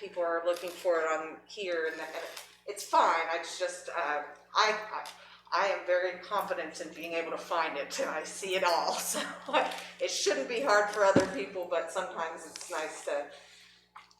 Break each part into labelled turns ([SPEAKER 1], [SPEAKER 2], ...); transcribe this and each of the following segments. [SPEAKER 1] people are looking for it on here and that, it's fine, I just, uh, I, I, I am very confident in being able to find it and I see it all, so it shouldn't be hard for other people, but sometimes it's nice to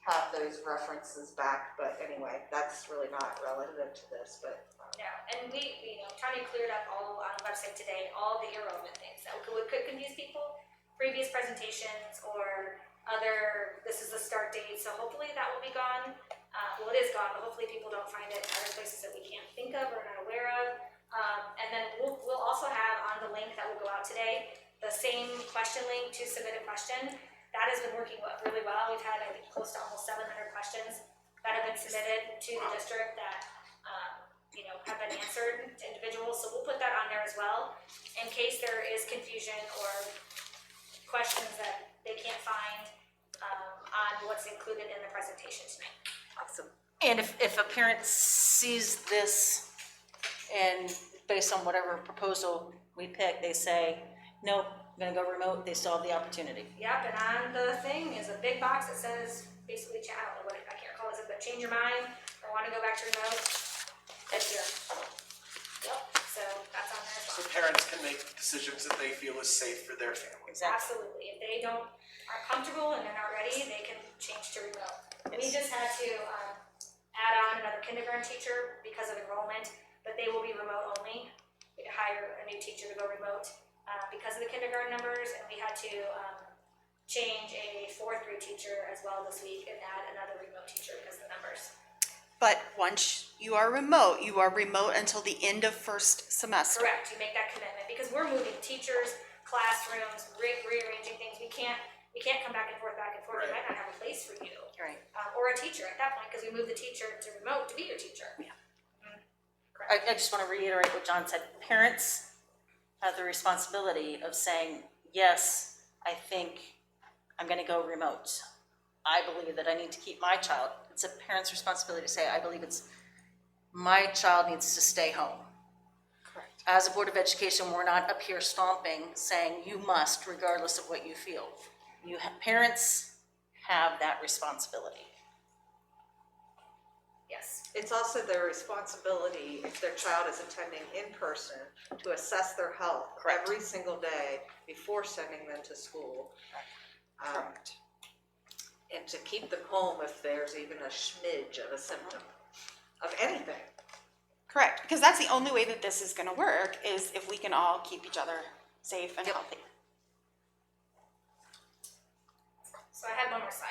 [SPEAKER 1] have those references back, but anyway, that's really not relative to this, but. um,
[SPEAKER 2] No, and we, we, you know, Tanya cleared up all on the website today, all the irrelevant things that could, would- could confuse people. Previous presentations or other, this is the start date, so hopefully that will be gone. Uh, well, it is gone, but hopefully people don't find it in other places that we can't think of or not aware of. Um, and then we'll, we'll also have on the link that will go out today, the same question link to submit a question. That has been working wa- really well. We've had, I think, close to almost seven hundred questions that have been submitted to the district that, um, you know, have been answered to individuals, so we'll put that on there as well, in case there is confusion or questions that they can't find, um, on what's included in the presentation tonight.
[SPEAKER 3] Awesome.
[SPEAKER 4] And if, if a parent sees this and based on whatever proposal we pick, they say, nope, I'm gonna go remote, they still have the opportunity.
[SPEAKER 2] Yep, and on the thing is a big box that says, basically, cha- I don't know what, it- I can't recall what it, says, but change your mind, or wanna go back to remote, that's here. Yep, so that's on there as
[SPEAKER 5] So
[SPEAKER 2] well.
[SPEAKER 5] parents can make decisions that they feel is safe for their families.
[SPEAKER 4] Exactly.
[SPEAKER 2] Absolutely, if they don't, are comfortable and they're not ready, they can change to remote. We just had to, um, add on another kindergarten teacher because of enrollment, but they will be remote only. We had to hire a new teacher to go remote, uh, because of the kindergarten numbers, and we had to, um, change a fourth grade teacher as well this week and add another remote teacher because of the numbers.
[SPEAKER 3] But once you are remote, you are remote until the end of first semester.
[SPEAKER 2] Correct, you make that commitment, because we're moving teachers, classrooms, re- rearranging things, we can't, we can't come back and forth, back and forth, we
[SPEAKER 5] Right.
[SPEAKER 2] might not have a place for you.
[SPEAKER 4] Right.
[SPEAKER 2] um, or a teacher at that point, because we moved the teacher to remote to be your teacher. Yeah.
[SPEAKER 4] I, I just wanna reiterate what John said, parents have the responsibility of saying, yes, I think I'm gonna go remote. I believe that I need to keep my child, it's a parent's responsibility to say, I believe it's, my child needs to stay home.
[SPEAKER 3] Correct.
[SPEAKER 4] as a Board of Education, we're not up here stomping, saying you must regardless of what you feel. You, ha- parents have that responsibility.
[SPEAKER 2] Yes,
[SPEAKER 1] It's also their responsibility, if their child is attending in person, to assess their health every single day before sending them to school. Um, And to keep them home if there's even a smidge of a symptom of anything.
[SPEAKER 3] Correct, because that's the only way that this is gonna work, is if we can all keep each other safe and healthy.
[SPEAKER 2] so I had one more slide.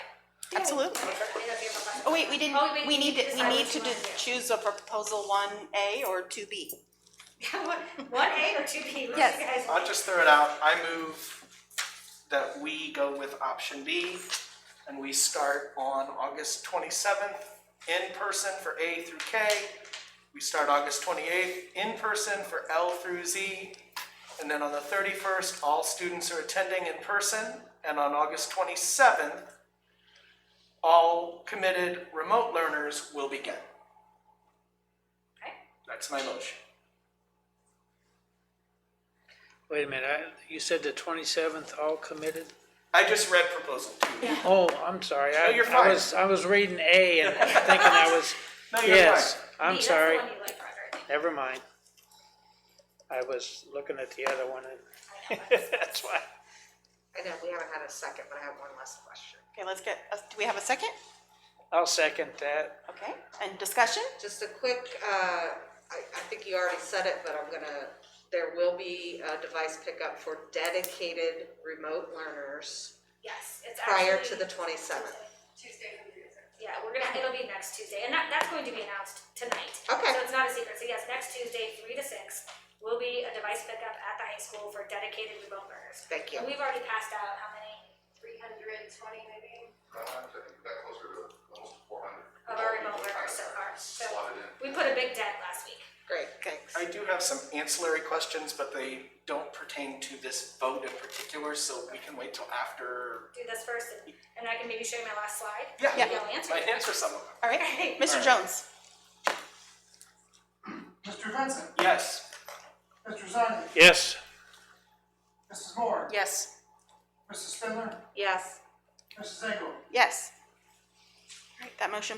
[SPEAKER 3] Absolutely.
[SPEAKER 2] I think that'd be about
[SPEAKER 3] Oh, wait, we didn't,
[SPEAKER 2] Oh, wait,
[SPEAKER 3] we need, to- we
[SPEAKER 2] decide
[SPEAKER 3] need
[SPEAKER 2] which
[SPEAKER 3] to
[SPEAKER 2] one
[SPEAKER 3] do- choose a proposal one A or two B.
[SPEAKER 2] do. One A or two B, what do you
[SPEAKER 3] Yes.
[SPEAKER 2] guys
[SPEAKER 5] I'll
[SPEAKER 2] want?
[SPEAKER 5] just throw it out. I move that we go with option B and we start on August twenty-seventh in person for A through K. We start August twenty-eighth in person for L through Z. And then on the thirty-first, all students are attending in person. And on August twenty-seventh, all committed remote learners will begin.
[SPEAKER 2] Okay.
[SPEAKER 5] That's my motion.
[SPEAKER 6] Wait a minute, I- you said the twenty-seventh, all committed?
[SPEAKER 5] I just read proposal two.
[SPEAKER 6] Oh, I'm sorry, I,
[SPEAKER 5] No, you're
[SPEAKER 6] I
[SPEAKER 5] fine.
[SPEAKER 6] was, I was reading A and thinking I was,
[SPEAKER 5] No, you're
[SPEAKER 6] yes,
[SPEAKER 5] fine.
[SPEAKER 6] I'm
[SPEAKER 2] B,
[SPEAKER 6] sorry,
[SPEAKER 2] That's the one you like, Roger, I think.
[SPEAKER 6] never mind. I was looking at the other one and, that's why.
[SPEAKER 1] I know, we haven't had a second, but I have one last question.
[SPEAKER 3] Okay, let's get, uh, do we have a second?
[SPEAKER 6] I'll second that.
[SPEAKER 3] Okay, and discussion?
[SPEAKER 1] Just a quick, uh, I, I think you already said it, but I'm gonna, there will be a device pickup for dedicated remote learners
[SPEAKER 2] Yes, it's
[SPEAKER 1] prior to
[SPEAKER 2] actually-
[SPEAKER 1] the twenty-seventh.
[SPEAKER 2] Yeah, we're gonna, it'll be next Tuesday, and that, that's going to be announced tonight.
[SPEAKER 1] Okay.
[SPEAKER 2] So it's not a secret, so yes, next Tuesday, three to six, will be a device pickup at the high school for dedicated remote learners.
[SPEAKER 1] Thank you.
[SPEAKER 2] And we've already passed out how many? Three hundred twenty maybe?
[SPEAKER 7] Uh, I think we got closer to almost four hundred.
[SPEAKER 2] of our remote learners so far, so
[SPEAKER 7] Slotted in.
[SPEAKER 2] we put a big dent last week.
[SPEAKER 1] Great, thanks.
[SPEAKER 5] I do have some ancillary questions, but they don't pertain to this vote in particular, so we can wait till after.
[SPEAKER 2] Do this first, and and I can maybe show you my last slide.
[SPEAKER 5] Yeah.
[SPEAKER 2] Maybe I'll answer.
[SPEAKER 5] I
[SPEAKER 2] it.
[SPEAKER 5] answer some of them.
[SPEAKER 3] All right, Mr. Jones?
[SPEAKER 8] Mr. Vincent,
[SPEAKER 5] Yes,
[SPEAKER 8] Mr. Zani,
[SPEAKER 6] Yes,
[SPEAKER 8] Mrs. Moore,
[SPEAKER 4] Yes.
[SPEAKER 8] Mrs. Spindler,
[SPEAKER 1] Yes.
[SPEAKER 8] Mrs. Engel.
[SPEAKER 3] Yes. All right, that motion